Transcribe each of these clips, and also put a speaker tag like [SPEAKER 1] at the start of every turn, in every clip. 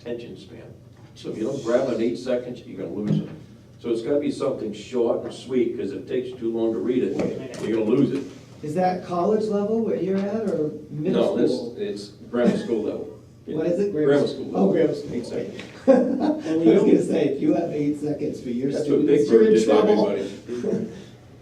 [SPEAKER 1] attention span. So if you don't grab it in eight seconds, you're gonna lose it. So it's gotta be something short and sweet, because it takes too long to read it, you're gonna lose it.
[SPEAKER 2] Is that college level where you're at or
[SPEAKER 1] No,
[SPEAKER 2] middle
[SPEAKER 1] this,
[SPEAKER 2] school?
[SPEAKER 1] it's grammar school level.
[SPEAKER 2] What is it?
[SPEAKER 1] Grammar school. level.
[SPEAKER 2] Oh, grammar school.
[SPEAKER 1] Eight seconds.
[SPEAKER 2] I was gonna say, if you have eight seconds for your
[SPEAKER 1] That's what Big
[SPEAKER 2] students, you're
[SPEAKER 1] Bird
[SPEAKER 2] in
[SPEAKER 1] did to
[SPEAKER 2] trouble.
[SPEAKER 1] everybody.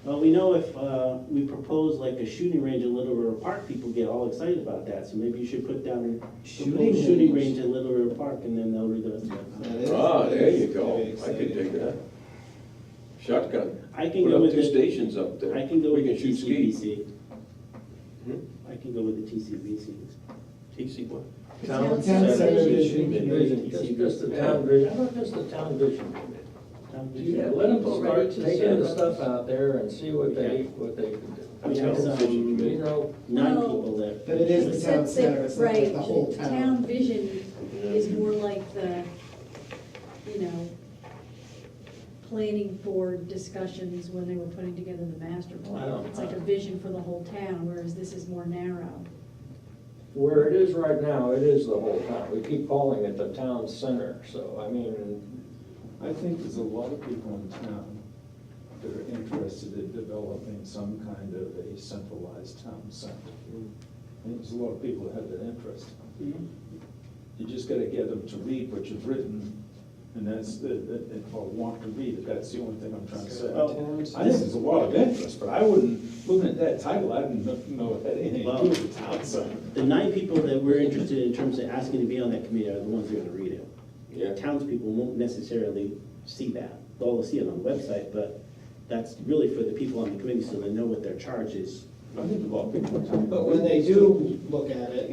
[SPEAKER 3] Well, we know if uh, we propose like a shooting range in Little River Park, people get all excited about that, so maybe you should put down a
[SPEAKER 2] Shooting
[SPEAKER 3] shooting, shooting
[SPEAKER 2] range.
[SPEAKER 3] range in Little River Park, and then they'll read the rest of it.
[SPEAKER 2] That is-
[SPEAKER 1] Ah, there you
[SPEAKER 2] that
[SPEAKER 1] go,
[SPEAKER 2] is
[SPEAKER 1] I could
[SPEAKER 2] exciting.
[SPEAKER 1] dig that. Shotgun,
[SPEAKER 3] I can
[SPEAKER 1] put
[SPEAKER 3] go
[SPEAKER 1] up
[SPEAKER 3] with
[SPEAKER 1] two
[SPEAKER 3] the,
[SPEAKER 1] stations up there.
[SPEAKER 3] I can go
[SPEAKER 1] We
[SPEAKER 3] with the
[SPEAKER 1] can shoot skis.
[SPEAKER 3] TCBC.
[SPEAKER 1] Hmm?
[SPEAKER 3] I can go with the TCBC.
[SPEAKER 1] TC what?
[SPEAKER 2] Town Center Vision Committee.
[SPEAKER 4] Just, just the town vision, how about just the town vision committee?
[SPEAKER 3] Um,
[SPEAKER 4] Yeah, let them start taking the stuff out there and see what they, what they can do.
[SPEAKER 3] We
[SPEAKER 1] Town Vision
[SPEAKER 3] have some
[SPEAKER 4] You know,
[SPEAKER 3] nine
[SPEAKER 5] Well,
[SPEAKER 3] people there.
[SPEAKER 2] But it is the town
[SPEAKER 5] Except that,
[SPEAKER 2] center, it's not like
[SPEAKER 5] right,
[SPEAKER 2] the whole
[SPEAKER 5] Town
[SPEAKER 2] town.
[SPEAKER 5] vision is more like the, you know, planning board discussions when they were putting together the master plan.
[SPEAKER 4] Wow.
[SPEAKER 5] It's like a vision for the whole town, whereas this is more narrow.
[SPEAKER 4] where it is right now, it is the whole town, we keep calling it the town center, so, I mean,
[SPEAKER 6] I think there's a lot of people in town that are interested in developing some kind of a centralized town center. I think there's a lot of people that have that interest.
[SPEAKER 3] Hmm?
[SPEAKER 6] You just gotta get them to read what you've written, and that's, uh, that- that- that- or want to read it, that's the only thing I'm trying to say. I think there's a lot of interest, but I wouldn't, looking at that title, I didn't kno- know it had anything to do with the town center.
[SPEAKER 3] The nine people that we're interested in terms of asking to be on that committee are the ones that are gonna read it.
[SPEAKER 1] Yeah.
[SPEAKER 3] Townspeople won't necessarily see that, they'll see it on the website, but that's really for the people on the committee, so they know what their charge is.
[SPEAKER 6] I think a lot of people in town.
[SPEAKER 2] But when they do look at it,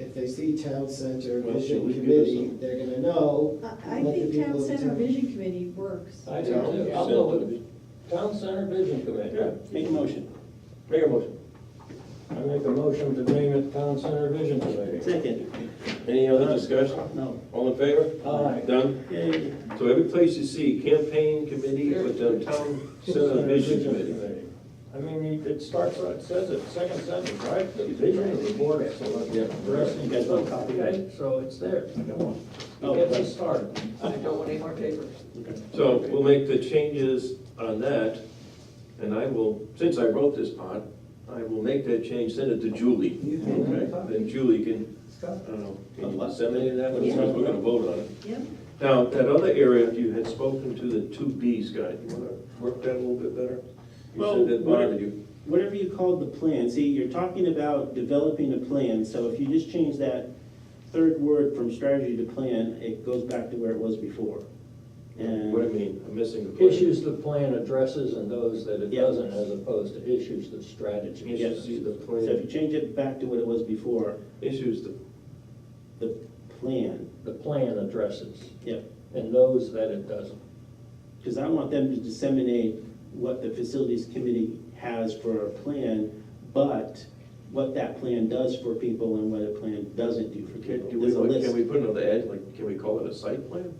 [SPEAKER 2] if they see town center
[SPEAKER 1] Well, should
[SPEAKER 2] vision
[SPEAKER 1] we give
[SPEAKER 2] committee,
[SPEAKER 1] us a-
[SPEAKER 2] they're gonna know.
[SPEAKER 5] I, I
[SPEAKER 2] what the
[SPEAKER 5] think
[SPEAKER 2] people
[SPEAKER 5] town
[SPEAKER 2] of the
[SPEAKER 5] center
[SPEAKER 2] town-
[SPEAKER 5] vision committee works.
[SPEAKER 4] I do too, I'll go with it. town center vision
[SPEAKER 1] Yeah,
[SPEAKER 4] committee.
[SPEAKER 3] Make a motion.
[SPEAKER 1] make a motion.
[SPEAKER 4] I make a motion to name it town center vision committee.
[SPEAKER 3] Second,
[SPEAKER 1] Any
[SPEAKER 3] Uh,
[SPEAKER 1] other discussion?
[SPEAKER 3] no.
[SPEAKER 1] All in favor?
[SPEAKER 4] Aye.
[SPEAKER 1] Done?
[SPEAKER 3] Yay.
[SPEAKER 1] So every place you see campaign committee with the town center vision committee.
[SPEAKER 4] I mean, it starts, right- it says it, second sentence, right? The vision of the board of selectmen.
[SPEAKER 1] Yeah.
[SPEAKER 4] Rest in
[SPEAKER 3] You guys want a copy?
[SPEAKER 4] Okay, so it's there.
[SPEAKER 3] Oh, right.
[SPEAKER 4] Get this started.
[SPEAKER 1] So we'll make the changes on that, and I will, since I wrote this part, I will make that change, send it to Julie.
[SPEAKER 2] You have another
[SPEAKER 1] Okay?
[SPEAKER 2] copy?
[SPEAKER 1] Then Julie can, I
[SPEAKER 2] Scott?
[SPEAKER 1] don't know, can you disseminate that one,
[SPEAKER 5] Yeah.
[SPEAKER 1] since we're gonna vote on it.
[SPEAKER 5] Yep.
[SPEAKER 1] Now, that other area, you had spoken to the two Bs guy, you wanna work that a little bit better? You
[SPEAKER 3] Well,
[SPEAKER 1] said that bothered you.
[SPEAKER 3] whatever you called the plan, see, you're talking about developing a plan, so if you just change that third word from strategy to plan, it goes back to where it was before. And.
[SPEAKER 1] What do you mean, I'm missing the point?
[SPEAKER 4] Issues the plan addresses and those that it
[SPEAKER 3] Yeah.
[SPEAKER 4] doesn't, as opposed to issues the strategy.
[SPEAKER 3] Yeah.
[SPEAKER 1] Issues the
[SPEAKER 3] So if
[SPEAKER 1] plan,
[SPEAKER 3] you change it back to what it was before,
[SPEAKER 1] issues the
[SPEAKER 3] the plan,
[SPEAKER 4] The plan addresses
[SPEAKER 3] yep,
[SPEAKER 4] and those that it doesn't.
[SPEAKER 3] because I want them to disseminate what the facilities committee has for a plan, but what that plan does for people and what a plan doesn't do for
[SPEAKER 1] Can,
[SPEAKER 3] people.
[SPEAKER 1] do we,
[SPEAKER 3] There's a
[SPEAKER 1] can we
[SPEAKER 3] list.
[SPEAKER 1] put another ad, like, can we call it a site plan?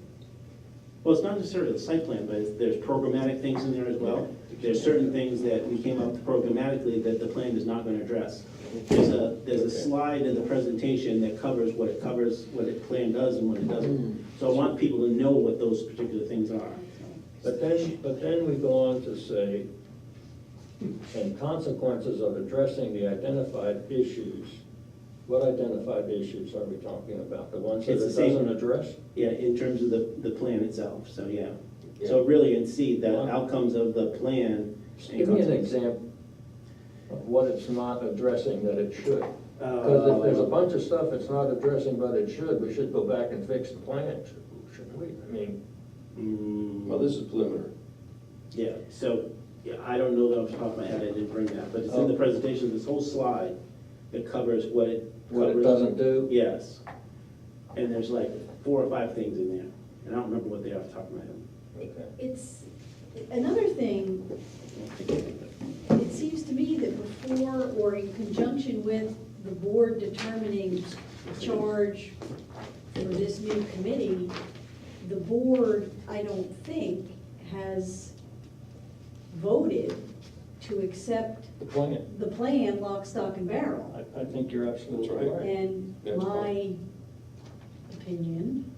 [SPEAKER 3] Well, it's not necessarily the site plan, but it's- there's programmatic things in there as well. There's certain things that we came up programmatically that the plan is not gonna address. There's a, there's a slide in the presentation that covers what it covers, what it plan does and what it doesn't.
[SPEAKER 1] Hmm.
[SPEAKER 3] So I want people to know what those particular things are.
[SPEAKER 4] But then, but then we go on to say, and consequences of addressing the identified issues. What identified issues are we talking about? The ones that it
[SPEAKER 3] It's the same-
[SPEAKER 4] doesn't address?
[SPEAKER 3] Yeah, in terms of the, the plan itself, so yeah. So really in C, the outcomes of the plan.
[SPEAKER 4] Just Give me an example of what it's not addressing that it should. Because if there's a bunch of stuff it's not addressing but it should, we should go back and fix the plan, shouldn't we? I mean,
[SPEAKER 3] Mm,
[SPEAKER 1] Well, this is preliminary.
[SPEAKER 3] Yeah, so, yeah, I don't know that off the top of my head, I didn't bring that, but it's in the
[SPEAKER 4] Oh.
[SPEAKER 3] presentation, this whole slide that covers what it.
[SPEAKER 4] what it
[SPEAKER 3] covers.
[SPEAKER 4] doesn't do.
[SPEAKER 3] Yes. And there's like four or five things in there, and I don't remember what they are off the top of my
[SPEAKER 4] Okay.
[SPEAKER 5] It's, another thing
[SPEAKER 3] head.
[SPEAKER 5] It seems to me that before or in conjunction with the board determining the charge for this new committee, the board, I don't think, has voted to accept
[SPEAKER 4] The plan,
[SPEAKER 5] the plan lock, stock, and barrel.
[SPEAKER 4] I, I think you're absolutely
[SPEAKER 1] That's right.
[SPEAKER 4] right.
[SPEAKER 5] And
[SPEAKER 1] That's
[SPEAKER 5] my opinion